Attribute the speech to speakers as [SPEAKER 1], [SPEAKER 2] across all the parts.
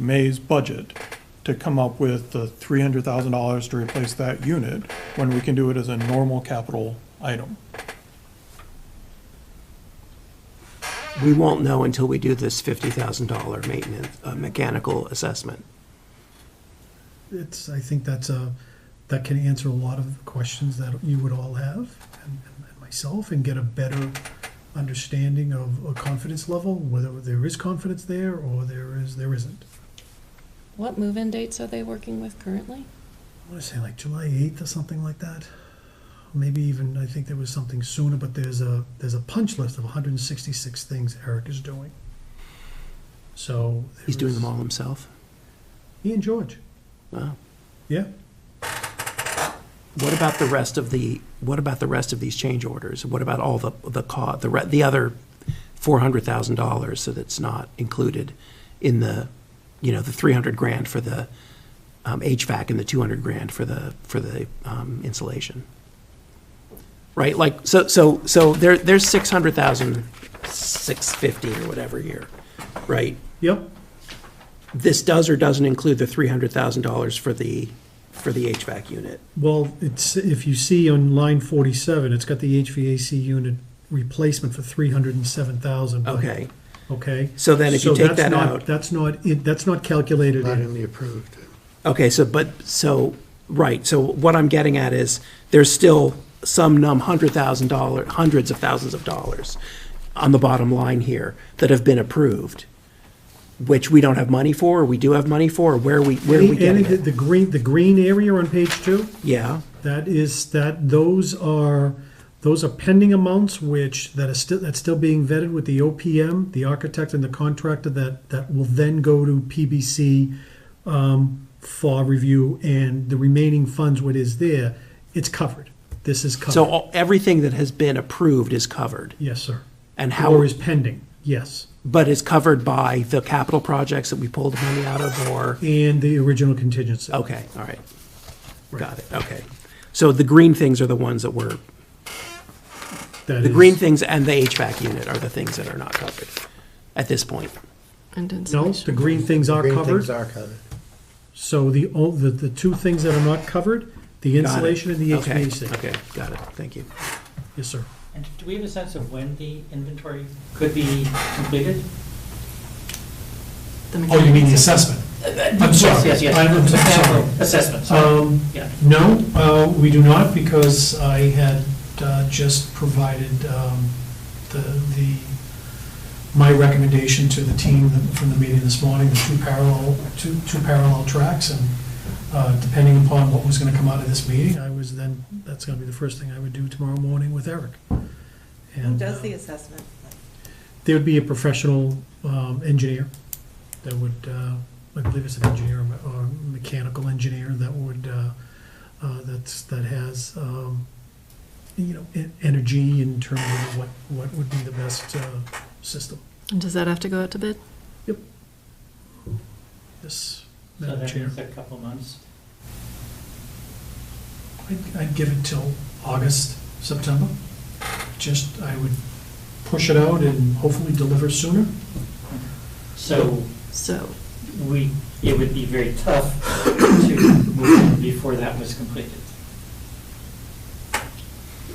[SPEAKER 1] May's budget to come up with the three hundred thousand dollars to replace that unit when we can do it as a normal capital item.
[SPEAKER 2] We won't know until we do this $50,000 maintenance, uh, mechanical assessment.
[SPEAKER 3] It's, I think that's a, that can answer a lot of the questions that you would all have, and and myself, and get a better understanding of a confidence level, whether there is confidence there or there is, there isn't.
[SPEAKER 4] What move-in dates are they working with currently?
[SPEAKER 3] I want to say like July 8th or something like that. Maybe even, I think there was something sooner, but there's a, there's a punch list of 166 things Eric is doing. So.
[SPEAKER 2] He's doing them
[SPEAKER 3] there's-
[SPEAKER 2] all himself.
[SPEAKER 3] He and George,
[SPEAKER 2] Wow.
[SPEAKER 3] yeah.
[SPEAKER 2] What about the rest of the, what about the rest of these change orders? What about all the, the co, the, re- the other $400,000 so that's not included in the, you know, the 300 grand for the um, HVAC and the 200 grand for the, for the um, insulation? Right, like, so, so, so there, there's 600,000, 650 or whatever here, right?
[SPEAKER 3] Yep,
[SPEAKER 2] this does or doesn't include the three hundred thousand dollars for the, for the HVAC unit.
[SPEAKER 3] Well, it's, if you see on line forty-seven, it's got the HVAC unit replacement for three hundred and seven thousand.
[SPEAKER 2] Okay,
[SPEAKER 3] Okay?
[SPEAKER 2] So then if you
[SPEAKER 3] So
[SPEAKER 2] take
[SPEAKER 3] that's
[SPEAKER 2] that
[SPEAKER 3] not-
[SPEAKER 2] out-
[SPEAKER 3] That's not, in- that's not calculated
[SPEAKER 5] Not
[SPEAKER 3] in.
[SPEAKER 5] in the approved.
[SPEAKER 2] okay, so, but, so, right, so what I'm getting at is, there's still some num hundred thousand dollar, hundreds of thousands of dollars on the bottom line here that have been approved, which we don't have money for, or we do have money for, or where are we, where are we
[SPEAKER 3] Any-
[SPEAKER 2] getting
[SPEAKER 3] The
[SPEAKER 2] it?
[SPEAKER 3] the green, the green area on page two,
[SPEAKER 2] Yeah,
[SPEAKER 3] that is, that, those are, those are pending amounts which, that is still, that's still being vetted with the OPM, the architect and the contractor, that, that will then go to PBC um, for review, and the remaining funds, what is there, it's covered. This is covered.
[SPEAKER 2] so all- everything that has been approved is covered,
[SPEAKER 3] Yes, sir.
[SPEAKER 2] and how?
[SPEAKER 3] Or is pending, yes.
[SPEAKER 2] but is covered by the capital projects that we pulled money out of, or?
[SPEAKER 3] And the original contingency.
[SPEAKER 2] Okay, all right. Got it, okay. So the green things are the ones that were,
[SPEAKER 3] That
[SPEAKER 2] the
[SPEAKER 3] is-
[SPEAKER 2] green things and the HVAC unit are the things that are not covered at this point.
[SPEAKER 4] And
[SPEAKER 3] No,
[SPEAKER 4] insulation.
[SPEAKER 3] the green things are
[SPEAKER 5] Green things
[SPEAKER 3] covered.
[SPEAKER 5] are covered.
[SPEAKER 3] So the, o- the, the two things that are not covered, the
[SPEAKER 2] Got it.
[SPEAKER 3] insulation and the
[SPEAKER 2] Okay,
[SPEAKER 3] HVAC.
[SPEAKER 2] Okay, got it, thank you.
[SPEAKER 3] Yes, sir.
[SPEAKER 6] And do we have a sense of when the inventory could be completed?
[SPEAKER 4] Oh, you mean the assessment?
[SPEAKER 3] I'm
[SPEAKER 6] Yes, yes,
[SPEAKER 3] I'm- I'm
[SPEAKER 6] yes.
[SPEAKER 3] sorry.
[SPEAKER 6] Assessment, sorry.
[SPEAKER 3] Um,
[SPEAKER 6] Yeah.
[SPEAKER 3] no, uh, we do not, because I had, uh, just provided, um, the, the, my recommendation to the team from the meeting this morning, the two parallel, two, two parallel tracks, and, uh, depending upon what was gonna come out of this meeting, I was then, that's gonna be the first thing I would do tomorrow morning with Eric.
[SPEAKER 7] Who
[SPEAKER 3] And uh,
[SPEAKER 7] does the assessment?
[SPEAKER 3] there would be a professional, um, engineer that would, uh, I believe it's an engineer or mechanical engineer that would, uh, uh, that's, that has, um, you know, en- energy in terms of what, what would be the best uh, system.
[SPEAKER 4] And does that have to go out to bid?
[SPEAKER 3] Yes,
[SPEAKER 6] So
[SPEAKER 3] Madam
[SPEAKER 6] that
[SPEAKER 3] Chair.
[SPEAKER 6] means a couple months.
[SPEAKER 3] I'd- I'd give it till August, September. Just, I would push it out and hopefully deliver sooner.
[SPEAKER 6] So
[SPEAKER 4] So,
[SPEAKER 6] we, it would be very tough to move in before that was completed.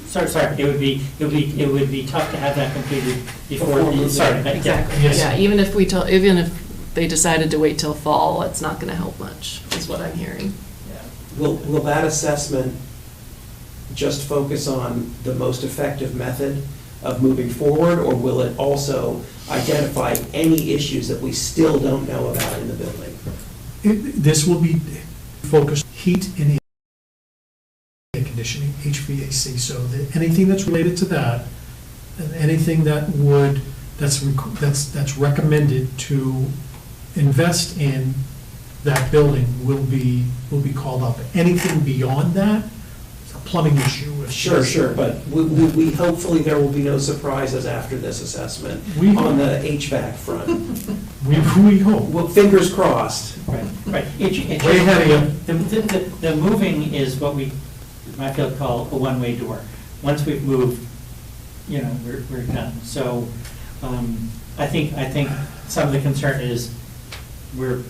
[SPEAKER 6] Sorry, sorry, it would be, it would be, it would be tough to have that completed before, the- sorry, but yeah.
[SPEAKER 4] exactly,
[SPEAKER 3] Yes.
[SPEAKER 4] yeah, even if we tell, even if they decided to wait till fall, it's not gonna help much, is what I'm hearing.
[SPEAKER 6] Yeah.
[SPEAKER 2] Will, will that assessment just focus on the most effective method of moving forward, or will it also identify any issues that we still don't know about in the building?
[SPEAKER 3] It- This will be focused heat and air conditioning, HVAC, so that anything that's related to that, and anything that would, that's, rec- that's, that's recommended to invest in that building will be, will be called up. Anything beyond that, it's a plumbing issue. if-
[SPEAKER 2] Sure, sure, but we, we, we- hopefully there will be no surprises after this assessment
[SPEAKER 3] We-
[SPEAKER 2] on the HVAC front.
[SPEAKER 3] We, we hope.
[SPEAKER 2] Well, fingers crossed.
[SPEAKER 6] Right, right. It- it-
[SPEAKER 3] Way ahead of you.
[SPEAKER 6] The, the- the, the moving is what we, in my field call a one-way door. Once we've moved, you know, we're, we're done. So, um, I think, I think some of the concern is we're